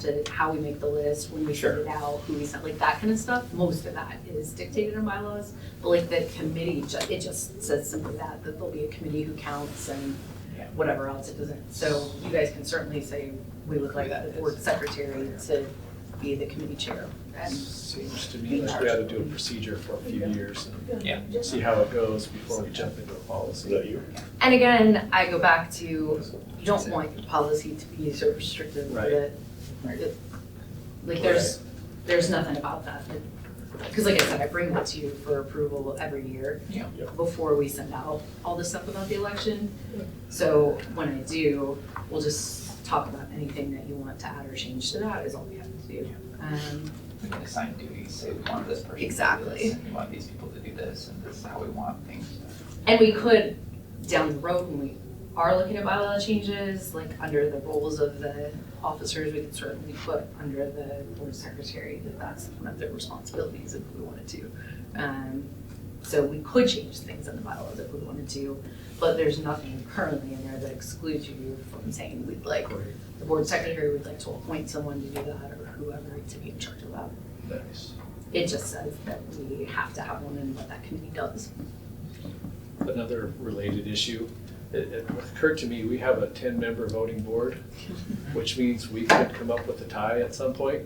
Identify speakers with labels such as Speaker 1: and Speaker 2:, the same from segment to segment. Speaker 1: to how we make the list, when we send it out, who we send, like that kind of stuff. Most of that is dictated in bylaws, but like the committee, ju- it just says simply that, that there'll be a committee who counts and
Speaker 2: Yeah.
Speaker 1: whatever else it doesn't. So you guys can certainly say, we would like the board secretary to be the committee chair. And
Speaker 3: Seems to me like we ought to do a procedure for a few years
Speaker 2: Yeah.
Speaker 3: and see how it goes before we jump into a
Speaker 4: Is
Speaker 3: policy.
Speaker 4: that you?
Speaker 1: and again, I go back to, you don't want your policy to be so restrictive
Speaker 3: Right.
Speaker 1: that, that- like, there's, there's nothing about that. Because like I said, I bring that to you for approval every year.
Speaker 2: Yeah.
Speaker 4: Yeah.
Speaker 1: Before we send out all this stuff about the election. So when I do, we'll just talk about anything that you want to add or change to that is all we have to do. Um,
Speaker 2: We can assign duties, say we want this person to do
Speaker 1: Exactly.
Speaker 2: this, and we want these people to do this, and this is how we want things.
Speaker 1: And we could, down the road, when we are looking at bylaw changes, like under the roles of the officers, we could certainly put under the board secretary that that's one of their responsibilities if we wanted to. Um, so we could change things in the bylaws if we wanted to, but there's nothing currently in there that excludes you from saying we'd like, the board secretary would like to appoint someone to do that or whoever to be in charge of that.
Speaker 3: Nice.
Speaker 1: It just says that we have to have one and what that committee does.
Speaker 3: Another related issue, it, it occurred to me, we have a ten-member voting board, which means we could come up with a tie at some point.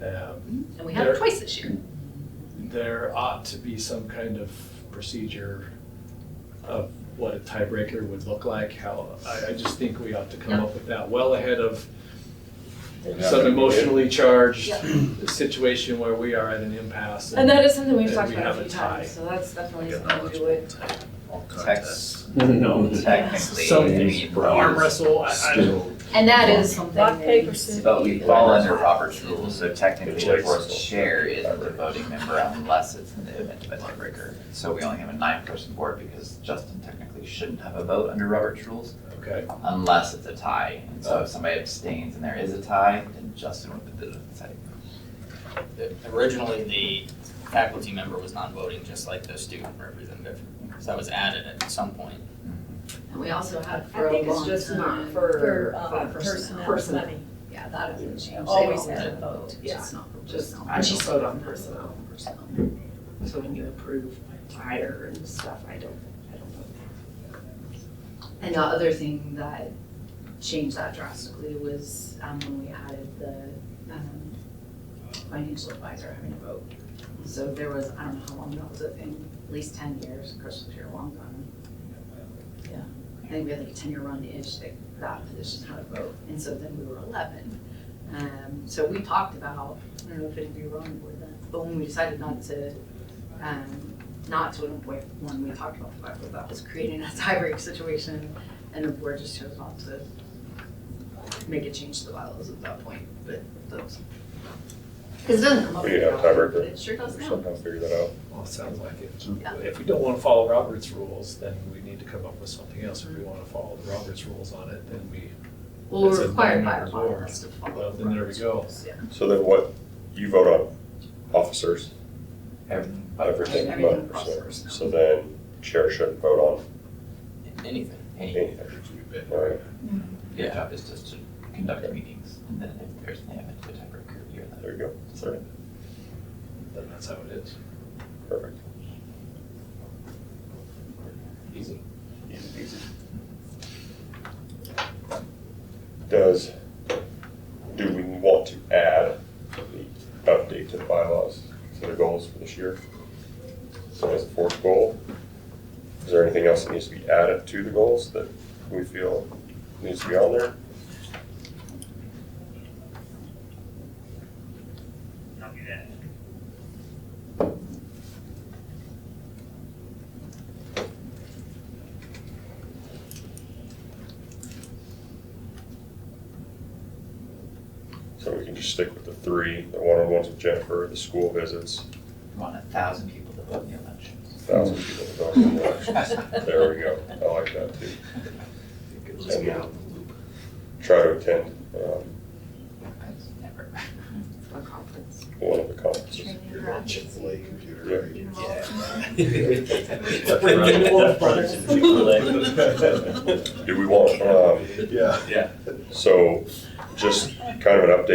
Speaker 3: Um,
Speaker 1: And we have it
Speaker 3: There-
Speaker 1: twice this year.
Speaker 3: There ought to be some kind of procedure of what a tiebreaker would look like, how, I, I just think we ought to come up with that well ahead of some emotionally charged situation where we are at an impasse.
Speaker 1: And that is something we've
Speaker 3: and
Speaker 1: talked
Speaker 3: we
Speaker 1: about
Speaker 3: have
Speaker 1: a few
Speaker 3: a tie.
Speaker 1: times, so that's definitely
Speaker 5: Yeah,
Speaker 1: something we would,
Speaker 5: All
Speaker 2: Text,
Speaker 6: Oh,
Speaker 3: No.
Speaker 2: technically, I mean,
Speaker 3: Some arm wrestle, I, I don't.
Speaker 1: and that is something.
Speaker 7: Rock,
Speaker 1: that
Speaker 7: paper,
Speaker 1: needs to
Speaker 7: scissors.
Speaker 2: but
Speaker 1: be-
Speaker 2: we fall under Robert's rules, so technically the
Speaker 5: Good choice.
Speaker 2: board's chair is the voting member unless it's in the event of a tiebreaker. So we only have a nine-person board because Justin technically shouldn't have a vote under Robert's rules
Speaker 3: Okay,
Speaker 2: unless it's a tie. And so if somebody abstains and there is a tie, then Justin would be the deciding.
Speaker 6: Originally, the faculty member was non-voting, just like the student representative. So that was added at some point.
Speaker 1: And we also had for a
Speaker 7: I think it's
Speaker 1: long
Speaker 7: just not
Speaker 1: time.
Speaker 7: for,
Speaker 1: for
Speaker 7: um, personnel.
Speaker 1: Personnel,
Speaker 7: Money.
Speaker 1: yeah, that hasn't changed.
Speaker 7: Always
Speaker 1: They all
Speaker 7: had
Speaker 1: did
Speaker 7: a vote,
Speaker 1: just not, just not.
Speaker 7: I just vote on personnel, so when you approve fire and stuff, I don't, I don't vote.
Speaker 1: And the other thing that changed that drastically was, um, when we added the, um, financial advisor having a vote. So there was, I don't know how long that was a thing, at least ten years, Chris was here a long time. Yeah, I think we had like a ten-year run-ish that that position had a vote, and so then we were eleven. Um, so we talked about, I don't know if any of you were on the board then, but when we decided not to, um, not to appoint one, we talked about the fact that that was creating a tiebreak situation, and the board just chose not to make a change to the bylaws at that point, but those. Cause it doesn't come up.
Speaker 4: We have
Speaker 1: very often,
Speaker 4: tiebreaker.
Speaker 1: but It sure does now.
Speaker 4: Somehow figure that out.
Speaker 3: well, it sounds like it.
Speaker 1: Yeah.
Speaker 3: If we don't wanna follow Robert's rules, then we need to come up with something else. If we wanna follow the Robert's rules on it, then we,
Speaker 1: Well,
Speaker 3: It's
Speaker 1: we're
Speaker 3: a
Speaker 1: required by our
Speaker 3: nine-member board.
Speaker 1: bylaws to follow.
Speaker 3: well, then there we go.
Speaker 1: Yeah.
Speaker 4: So then what, you vote on officers,
Speaker 2: Everything but
Speaker 4: everything
Speaker 1: Everything
Speaker 4: but
Speaker 1: but
Speaker 4: officers.
Speaker 1: officers.
Speaker 4: So then chair shouldn't vote on
Speaker 6: Anything.
Speaker 2: any,
Speaker 4: anything, right?
Speaker 2: your job is just to conduct meetings, and then if there's an event of a tiebreaker, you're
Speaker 4: There you go,
Speaker 2: the.
Speaker 3: Then that's how it is.
Speaker 4: perfect.
Speaker 3: Easy.
Speaker 4: Easy peasy. Does, do we want to add the update to the bylaws, to the goals for this year? So as a fourth goal, is there anything else that needs to be added to the goals that we feel needs to be on there? So we can just stick with the three, the one-on-ones with Jennifer, the school visits,
Speaker 2: Want a thousand people to vote in the elections.
Speaker 4: thousand people to vote in the election. There we go, I like that too. And then Try to attend, um,
Speaker 2: That's never.
Speaker 1: For conference.
Speaker 4: one of the conferences.
Speaker 1: You know,
Speaker 4: Do we want, um,
Speaker 3: Yeah.
Speaker 4: so just kind of an update